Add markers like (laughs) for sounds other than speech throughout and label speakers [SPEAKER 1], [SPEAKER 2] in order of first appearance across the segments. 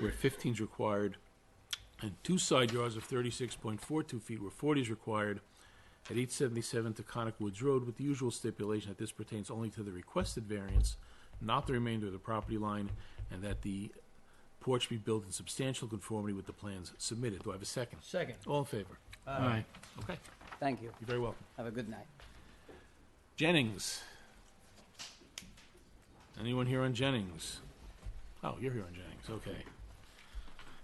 [SPEAKER 1] where fifteen is required, and two side yards of thirty-six point four-two feet where forty is required at eight seventy-seven Taconic Woods Road with the usual stipulation that this pertains only to the requested variance, not the remainder of the property line, and that the porch be built in substantial conformity with the plans submitted. Do I have a second?
[SPEAKER 2] Second.
[SPEAKER 1] All in favor?
[SPEAKER 2] Aye.
[SPEAKER 1] Okay,
[SPEAKER 3] Thank you.
[SPEAKER 1] you're very welcome.
[SPEAKER 3] Have a good night.
[SPEAKER 1] Jennings. Anyone here on Jennings? Oh, you're here on Jennings, okay.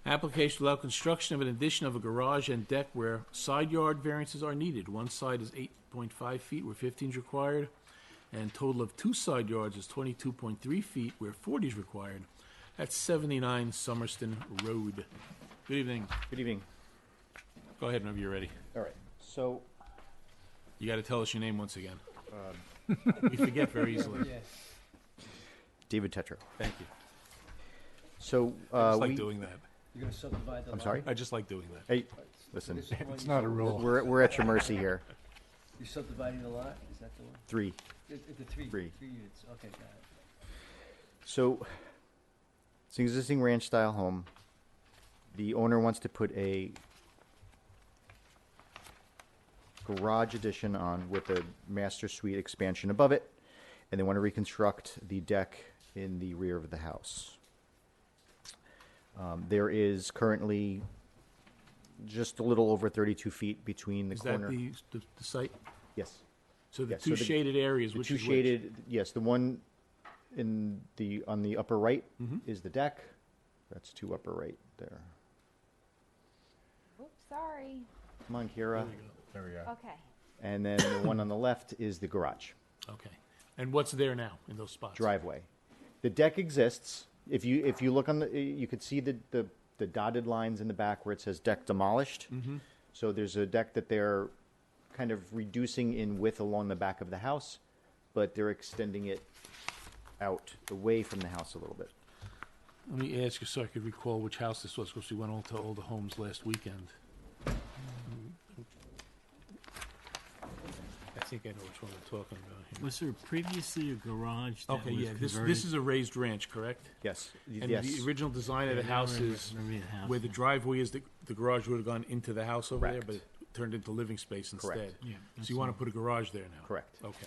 [SPEAKER 1] Application to allow construction of an addition of a garage and deck where side yard variances are needed. One side is eight point five feet where fifteen is required, and total of two side yards is twenty-two point three feet where forty is required. That's seventy-nine Summerston Road. Good evening.
[SPEAKER 4] Good evening.
[SPEAKER 1] Go ahead whenever you're ready.
[SPEAKER 4] All right, so,
[SPEAKER 1] You gotta tell us your name once again. We forget very
[SPEAKER 2] Uh,
[SPEAKER 1] easily.
[SPEAKER 4] David Tetra.
[SPEAKER 1] Thank you.
[SPEAKER 4] So,
[SPEAKER 1] I
[SPEAKER 4] uh,
[SPEAKER 1] just like
[SPEAKER 4] we,
[SPEAKER 1] doing that.
[SPEAKER 2] You're gonna subdivide the
[SPEAKER 4] I'm
[SPEAKER 2] lot?
[SPEAKER 4] sorry?
[SPEAKER 1] I just like doing that.
[SPEAKER 4] Hey, listen,
[SPEAKER 2] This is the one
[SPEAKER 5] It's
[SPEAKER 2] you
[SPEAKER 5] not a
[SPEAKER 2] sub-
[SPEAKER 5] rule.
[SPEAKER 4] we're, we're at your mercy here.
[SPEAKER 2] You're subdividing the lot, is that the one?
[SPEAKER 4] Three.
[SPEAKER 2] The, the- the three,
[SPEAKER 4] Three.
[SPEAKER 2] three units, okay, got it.
[SPEAKER 4] So, it's an existing ranch style home. The owner wants to put a garage addition on with a master suite expansion above it, and they want to reconstruct the deck in the rear of the house. Um, there is currently just a little over 32 feet between the
[SPEAKER 1] Is that
[SPEAKER 4] corner.
[SPEAKER 1] the, the, the site?
[SPEAKER 4] Yes.
[SPEAKER 1] So the
[SPEAKER 4] Yeah, so
[SPEAKER 1] two
[SPEAKER 4] the-
[SPEAKER 1] shaded areas,
[SPEAKER 4] The
[SPEAKER 1] which
[SPEAKER 4] two
[SPEAKER 1] is which?
[SPEAKER 4] shaded, yes, the one in the, on the upper right
[SPEAKER 1] Mm-hmm.
[SPEAKER 4] is the deck. That's two upper right there.
[SPEAKER 6] Oops, sorry.
[SPEAKER 4] Come on, Kira.
[SPEAKER 5] There we go.
[SPEAKER 6] Okay.
[SPEAKER 4] And then the one on the left is the garage
[SPEAKER 1] Okay. And what's there now in those spots?
[SPEAKER 4] driveway. The deck exists. If you, if you look on the, eh, you could see the, the, the dotted lines in the back where it says deck demolished.
[SPEAKER 1] Mm-hmm.
[SPEAKER 4] So there's a deck that they're kind of reducing in width along the back of the house, but they're extending it out away from the house a little bit.
[SPEAKER 1] Let me ask you so I could recall which house this was, because we went all to all the homes last weekend. I think I know which one we're talking about
[SPEAKER 7] Was there previously a garage that
[SPEAKER 1] here. Okay,
[SPEAKER 7] was
[SPEAKER 1] yeah, this,
[SPEAKER 7] converted?
[SPEAKER 1] this is a raised ranch, correct?
[SPEAKER 4] Yes,
[SPEAKER 1] And
[SPEAKER 4] yes.
[SPEAKER 1] the original design of
[SPEAKER 7] Yeah,
[SPEAKER 1] the
[SPEAKER 7] now I
[SPEAKER 1] house
[SPEAKER 7] remember-
[SPEAKER 1] is
[SPEAKER 7] I remember the house
[SPEAKER 1] where the
[SPEAKER 7] now.
[SPEAKER 1] driveway is, the, the garage would have gone into the house over there, but it
[SPEAKER 4] Correct.
[SPEAKER 1] turned into living space
[SPEAKER 4] Correct.
[SPEAKER 1] instead.
[SPEAKER 7] Yeah,
[SPEAKER 1] So you want to put a garage there now?
[SPEAKER 4] Correct.
[SPEAKER 1] Okay.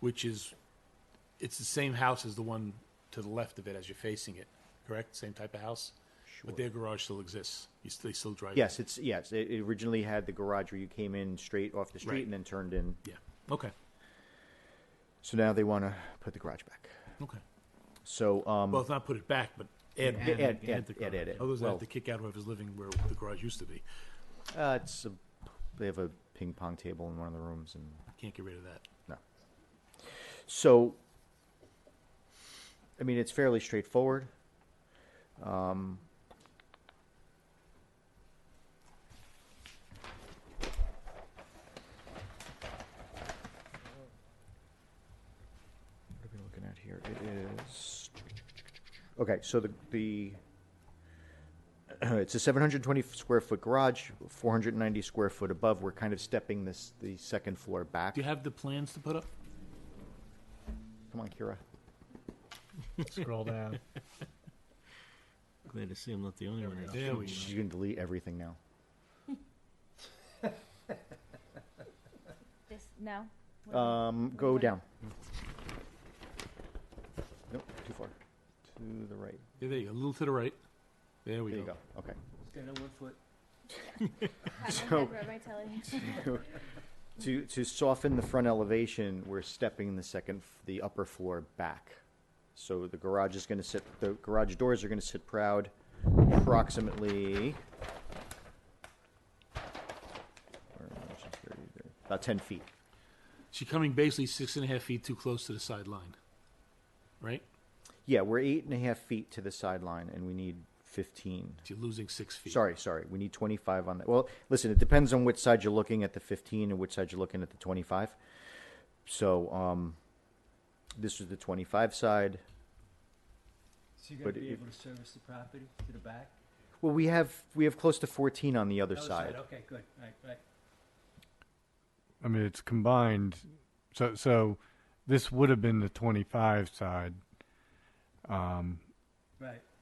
[SPEAKER 1] Which is, it's the same house as the one to the left of it as you're facing it, correct? Same type of house? But their garage still exists. You still, they still drive? it.
[SPEAKER 4] Yes, it's, yes, it it originally had the garage where you came in straight off the
[SPEAKER 1] Right.
[SPEAKER 4] street and then turned in.
[SPEAKER 1] Yeah. Okay.
[SPEAKER 4] So now they want to put the garage back.
[SPEAKER 1] Okay.
[SPEAKER 4] So, um,
[SPEAKER 1] Well, not put it back, but add,
[SPEAKER 4] add,
[SPEAKER 7] add
[SPEAKER 4] add, add,
[SPEAKER 7] the
[SPEAKER 4] add, add.
[SPEAKER 1] others
[SPEAKER 4] Well,
[SPEAKER 1] have to kick out whoever's living where the garage used to be.
[SPEAKER 4] uh, it's, a- they have a ping pong table in one of the rooms and,
[SPEAKER 1] Can't get rid of that.
[SPEAKER 4] no. So, I mean, it's fairly straightforward. Um, what are we looking at here? It is okay. So the the (clears throat) it's a 720 square foot garage, 490 square foot above. We're kind of stepping this the second floor back.
[SPEAKER 1] Do you have the plans to put up?
[SPEAKER 4] Come on, Kira.
[SPEAKER 5] Scroll down.
[SPEAKER 7] Glad to see I'm not the only one. that's
[SPEAKER 1] There we
[SPEAKER 7] doing
[SPEAKER 4] She's gonna delete everything now.
[SPEAKER 6] This no. What do (laughs) I-
[SPEAKER 4] Um, go down. Nope, too far. To the right.
[SPEAKER 1] (laughs) Yeah, there you go. A little to the right. There we
[SPEAKER 4] There you
[SPEAKER 1] go.
[SPEAKER 4] go. Okay.
[SPEAKER 2] Stand on one foot.
[SPEAKER 6] I have
[SPEAKER 4] so-
[SPEAKER 6] my head where my telly.
[SPEAKER 4] To to soften the front elevation, we're stepping the second, f- the upper floor back. So the garage is gonna sit. The garage doors are gonna sit proud, approximately. where am I? It's just thirty there. About ten feet.
[SPEAKER 1] She coming basically six and a half feet too close to the sideline, right?
[SPEAKER 4] Yeah, we're eight and a half feet to the sideline, and we need fifteen.
[SPEAKER 1] You're losing six feet.
[SPEAKER 4] Sorry, sorry. We need 25 on that. Well, listen, it depends on which side you're looking at the 15 and which side you're looking at the 25. So, um, this is the 25 side.
[SPEAKER 2] So you're
[SPEAKER 4] But
[SPEAKER 2] gonna be
[SPEAKER 4] it-
[SPEAKER 2] able to service the property to the back?
[SPEAKER 4] Well, we have we have close to 14 on the other
[SPEAKER 2] Other
[SPEAKER 4] side.
[SPEAKER 2] Okay, good, right, right.
[SPEAKER 5] I mean, it's combined. So, so this would have been the 25 side.
[SPEAKER 2] Right,